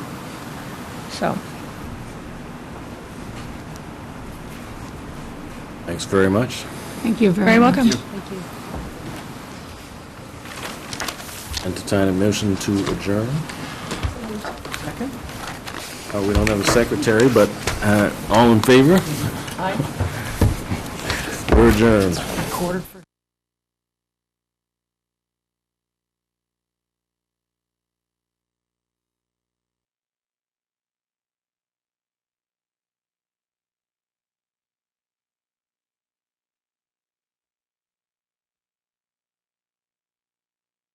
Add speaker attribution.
Speaker 1: so.
Speaker 2: Thanks very much.
Speaker 3: Thank you
Speaker 1: Very
Speaker 3: very much.
Speaker 1: welcome.
Speaker 2: Entertain a motion to adjourn. Uh, We don't have a secretary, but uh, all in favor? Aye. We're adjourned.
Speaker 3: Quarter for-